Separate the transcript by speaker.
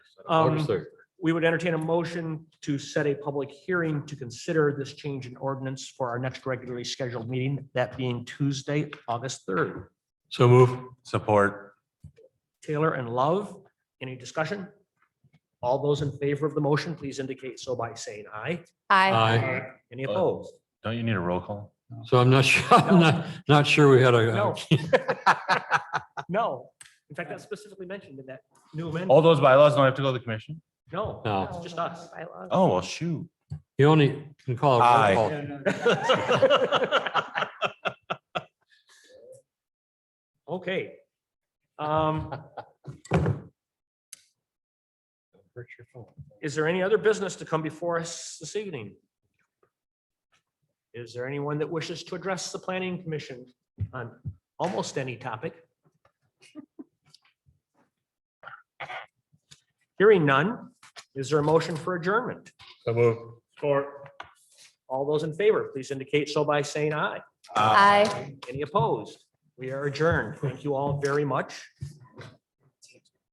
Speaker 1: Um,
Speaker 2: Understood.
Speaker 1: we would entertain a motion to set a public hearing to consider this change in ordinance for our next regularly scheduled meeting, that being Tuesday, August third.
Speaker 2: So move. Support.
Speaker 1: Taylor and Love, any discussion? All those in favor of the motion, please indicate so by saying aye.
Speaker 3: Aye.
Speaker 1: Any opposed?
Speaker 4: Don't you need a roll call?
Speaker 2: So I'm not sure, I'm not, not sure we had a.
Speaker 1: No. No, in fact, that's specifically mentioned in that new amendment.
Speaker 4: Uh, All those bylaws don't have to go to the commission?
Speaker 1: No,
Speaker 2: No.
Speaker 1: it's just us.
Speaker 4: Oh, well, shoot.
Speaker 2: You only can call
Speaker 4: Aye.
Speaker 2: a roll call.
Speaker 1: Okay. Um, Is there any other business to come before us this evening? Is there anyone that wishes to address the planning commission on almost any topic? Hearing none, is there a motion for adjournment?
Speaker 2: So move.
Speaker 1: All those in favor, please indicate so by saying aye.
Speaker 3: Aye.
Speaker 1: Any opposed? We are adjourned. Thank you all very much.